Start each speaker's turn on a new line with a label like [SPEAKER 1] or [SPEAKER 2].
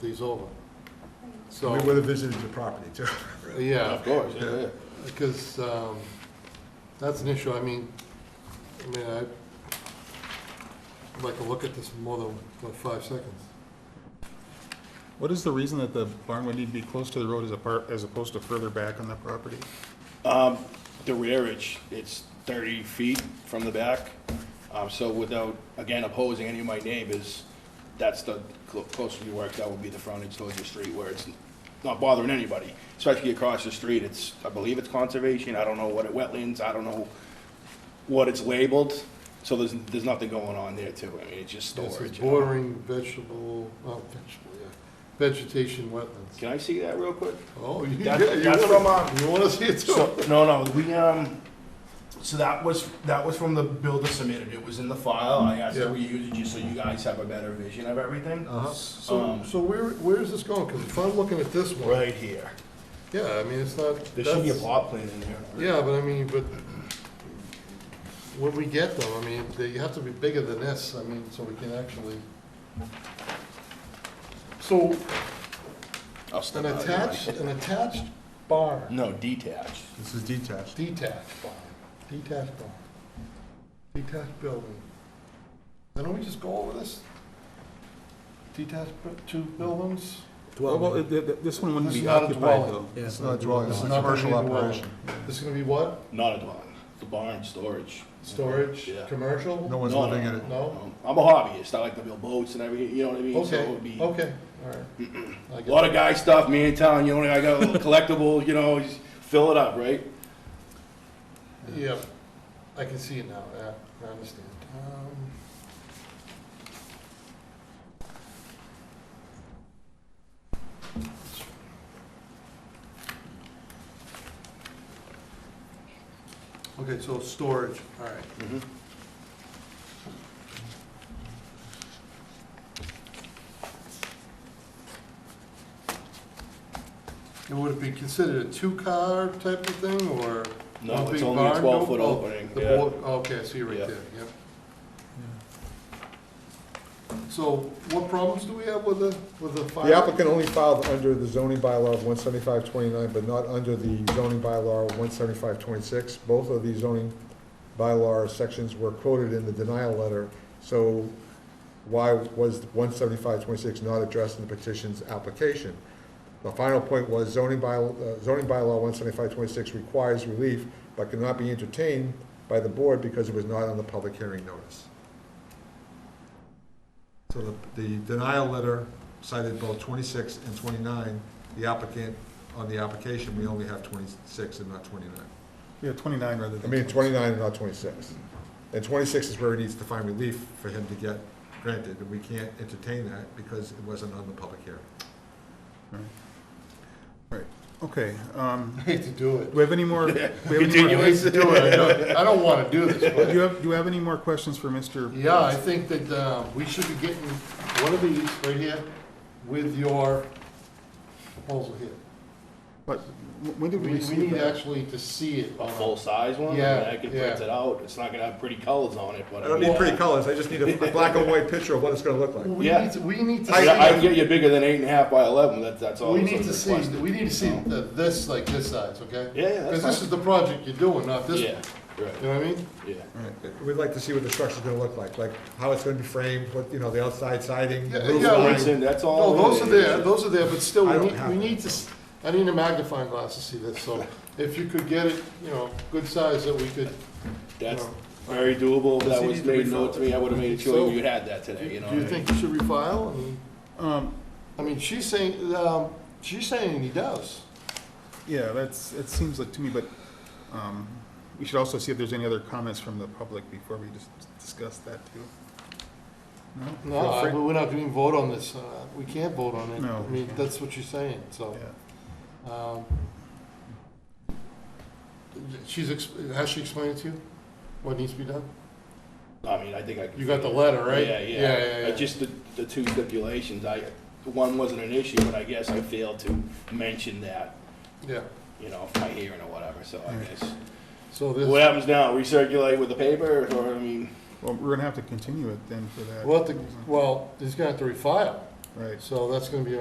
[SPEAKER 1] these over. So,
[SPEAKER 2] We would have visited your property too.
[SPEAKER 1] yeah,
[SPEAKER 3] Of course, yeah, yeah.
[SPEAKER 1] because um, that's an issue, I mean, I mean, I'd like to look at this more than, what, five seconds?
[SPEAKER 4] What is the reason that the barn would need to be close to the road as apart, as opposed to further back on the property?
[SPEAKER 3] The rear, it's, it's thirty feet from the back, um, so without, again, opposing any of my neighbors, that's the clo- closer you work, that would be the frontage towards the street where it's not bothering anybody. Especially across the street, it's, I believe it's conservation, I don't know what it, wetlands, I don't know what it's labeled, so there's, there's nothing going on there too, I mean, it's just
[SPEAKER 1] This is
[SPEAKER 3] storage. you know.
[SPEAKER 1] bordering vegetable, oh, vegetable, yeah, vegetation wetlands.
[SPEAKER 3] Can I see that real quick?
[SPEAKER 1] Oh, you, yeah,
[SPEAKER 3] That's-
[SPEAKER 1] you
[SPEAKER 3] that's from,
[SPEAKER 1] wanna,
[SPEAKER 3] uh,
[SPEAKER 1] you wanna see it too?
[SPEAKER 3] So, no, no, we, um, so that was, that was from the builder submitted, it was in the file, I asked if we use it just so you guys have a better vision of everything.
[SPEAKER 1] Uh-huh. So,
[SPEAKER 3] Um,
[SPEAKER 1] so where, where is this going? Because if I'm looking at this one,
[SPEAKER 3] Right here,
[SPEAKER 1] yeah, I mean, it's not.
[SPEAKER 3] there should be a
[SPEAKER 1] that's-
[SPEAKER 3] plot plan in here.
[SPEAKER 1] Yeah, but I mean, but when we get them, I mean, they have to be bigger than this, I mean, so we can actually. So,
[SPEAKER 3] I'll step
[SPEAKER 1] an
[SPEAKER 3] out of the
[SPEAKER 1] attached,
[SPEAKER 3] way.
[SPEAKER 1] an attached barn,
[SPEAKER 3] Uh, No, detached.
[SPEAKER 2] This is detached.
[SPEAKER 1] detached barn, detached barn, detached building. Then don't we just go over this? Detached, bu- two buildings?
[SPEAKER 4] Well, it- it- it- this one wouldn't
[SPEAKER 1] This is
[SPEAKER 4] be
[SPEAKER 1] not a
[SPEAKER 4] occupied
[SPEAKER 1] dwelling.
[SPEAKER 4] though.
[SPEAKER 2] It's not a dwelling, it's a commercial
[SPEAKER 1] Not gonna be a
[SPEAKER 2] operation.
[SPEAKER 1] dwelling. This is gonna be what?
[SPEAKER 3] Not a dwelling, the barn, storage.
[SPEAKER 1] Storage,
[SPEAKER 3] Yeah.
[SPEAKER 1] commercial?
[SPEAKER 2] No one's
[SPEAKER 3] No,
[SPEAKER 2] living in it.
[SPEAKER 1] No?
[SPEAKER 3] Um, I'm a hobbyist, I like to build boats and everything, you know what I mean? So it
[SPEAKER 1] Okay,
[SPEAKER 3] would be
[SPEAKER 1] okay, all right. I
[SPEAKER 3] A
[SPEAKER 1] get
[SPEAKER 3] lot
[SPEAKER 1] it.
[SPEAKER 3] of guy stuff, me and town, you know, I got a little collectible, you know, just fill it up, right?
[SPEAKER 1] Yeah, I can see it now, yeah, I understand. Um, Okay, so storage, all right.
[SPEAKER 3] Mhm.
[SPEAKER 1] And would it be considered a two-car type of thing, or?
[SPEAKER 3] No,
[SPEAKER 1] one
[SPEAKER 3] it's
[SPEAKER 1] big
[SPEAKER 3] only a
[SPEAKER 1] barn?
[SPEAKER 3] 12 foot
[SPEAKER 1] Oh,
[SPEAKER 3] opening,
[SPEAKER 1] the
[SPEAKER 3] yeah.
[SPEAKER 1] board- Okay, I see right
[SPEAKER 3] Yeah.
[SPEAKER 1] there, yep. So what problems do we have with the, with the fire?
[SPEAKER 2] The applicant only filed under the zoning bylaw of one seventy-five twenty-nine, but not under the zoning bylaw of one seventy-five twenty-six. Both of these zoning bylaw sections were quoted in the denial letter, so why was one seventy-five twenty-six not addressed in the petition's application? The final point was zoning by, uh, zoning bylaw one seventy-five twenty-six requires relief, but cannot be entertained by the board because it was not on the public hearing notice. So the, the denial letter cited both twenty-six and twenty-nine, the applicant, on the application, we only have twenty-six and not twenty-nine.
[SPEAKER 4] Yeah, twenty-nine rather
[SPEAKER 2] I
[SPEAKER 4] than.
[SPEAKER 2] mean, twenty-nine and not twenty-six. And twenty-six is where he needs to find relief for him to get granted, and we can't entertain that because it wasn't on the public hearing.
[SPEAKER 4] Right. Right, okay, um,
[SPEAKER 1] I hate to do it.
[SPEAKER 4] do we have any more? do we have any more-
[SPEAKER 1] I hate to do it, I don't, I don't wanna do this,
[SPEAKER 4] Do you
[SPEAKER 1] but,
[SPEAKER 4] have, do you have any more questions for Mr.?
[SPEAKER 1] yeah, I think that, uh, we should be getting one of these right here with your proposal here.
[SPEAKER 4] But when did we
[SPEAKER 1] We, we
[SPEAKER 4] receive
[SPEAKER 1] need
[SPEAKER 4] that?
[SPEAKER 1] actually to see it.
[SPEAKER 3] A
[SPEAKER 1] on a-
[SPEAKER 3] full size one?
[SPEAKER 1] Yeah,
[SPEAKER 3] I mean, I can print
[SPEAKER 1] yeah.
[SPEAKER 3] it out, it's not gonna have pretty colors on it, but.
[SPEAKER 2] I don't need pretty colors, I just need a, a black and white picture of what it's gonna look like.
[SPEAKER 1] We
[SPEAKER 3] Yeah.
[SPEAKER 1] need to, we need to
[SPEAKER 3] I, I can
[SPEAKER 1] see,
[SPEAKER 3] get you bigger than eight and a half by eleven, that's, that's all.
[SPEAKER 1] we
[SPEAKER 3] that's
[SPEAKER 1] need to see,
[SPEAKER 3] requested. Oh.
[SPEAKER 1] we need to see the- this, like this size, okay?
[SPEAKER 3] Yeah, yeah, that's
[SPEAKER 1] Because this
[SPEAKER 3] fine.
[SPEAKER 1] is the project you're doing, not this
[SPEAKER 3] Yeah,
[SPEAKER 1] one, you
[SPEAKER 3] right,
[SPEAKER 1] know what I mean?
[SPEAKER 3] yeah.
[SPEAKER 2] We'd like to see what the structure's gonna look like, like how it's gonna be framed, what, you know, the outside siding, the
[SPEAKER 1] Yeah,
[SPEAKER 2] roof
[SPEAKER 1] yeah, we-
[SPEAKER 2] line.
[SPEAKER 3] That's in- that's all.
[SPEAKER 1] No, those
[SPEAKER 3] in
[SPEAKER 1] are there, those are there, but still,
[SPEAKER 2] I
[SPEAKER 1] we
[SPEAKER 2] don't
[SPEAKER 1] need,
[SPEAKER 2] have
[SPEAKER 1] we
[SPEAKER 2] it.
[SPEAKER 1] need to, s- I need a magnifying glass to see this, so if you could get it, you know, good size that we could,
[SPEAKER 3] That's
[SPEAKER 1] No.
[SPEAKER 3] very doable, if
[SPEAKER 2] Does
[SPEAKER 3] that
[SPEAKER 2] he
[SPEAKER 3] was
[SPEAKER 2] need to
[SPEAKER 3] made
[SPEAKER 2] refill
[SPEAKER 3] known to me, I would've made
[SPEAKER 1] So-
[SPEAKER 3] sure you had that today, you know.
[SPEAKER 1] do you
[SPEAKER 3] what I mean?
[SPEAKER 1] think you should refile? I mean,
[SPEAKER 4] Um,
[SPEAKER 1] I mean, she's saying, um, she's saying he does.
[SPEAKER 4] yeah, that's, it seems like to me, but, um, we should also see if there's any other comments from the public before we just discuss that too.
[SPEAKER 1] No,
[SPEAKER 4] Feel free-
[SPEAKER 1] I- we're not doing vote on this, uh, we can't vote on it.
[SPEAKER 4] No,
[SPEAKER 1] I
[SPEAKER 4] we
[SPEAKER 1] mean,
[SPEAKER 4] can't.
[SPEAKER 1] that's what she's saying, so.
[SPEAKER 4] Yeah.
[SPEAKER 1] Um, She's, ex- has she explained it to you? What needs to be done?
[SPEAKER 3] I mean, I think I. can
[SPEAKER 1] You got the
[SPEAKER 3] figure-
[SPEAKER 1] letter, right?
[SPEAKER 3] Yeah, yeah.
[SPEAKER 1] Yeah, yeah,
[SPEAKER 3] Uh,
[SPEAKER 1] yeah.
[SPEAKER 3] Just the, the two stipulations, I, one wasn't an issue, but I guess I failed to mention that,
[SPEAKER 1] Yeah,
[SPEAKER 3] you know, from my hearing or whatever, so I guess.
[SPEAKER 1] so
[SPEAKER 3] What
[SPEAKER 1] this,
[SPEAKER 3] happens now, recirculate with the paper, or, I mean,
[SPEAKER 4] Well, we're gonna have to continue it then for that.
[SPEAKER 1] we'll have to, well, he's gonna have to refile.
[SPEAKER 4] right.
[SPEAKER 1] So that's gonna be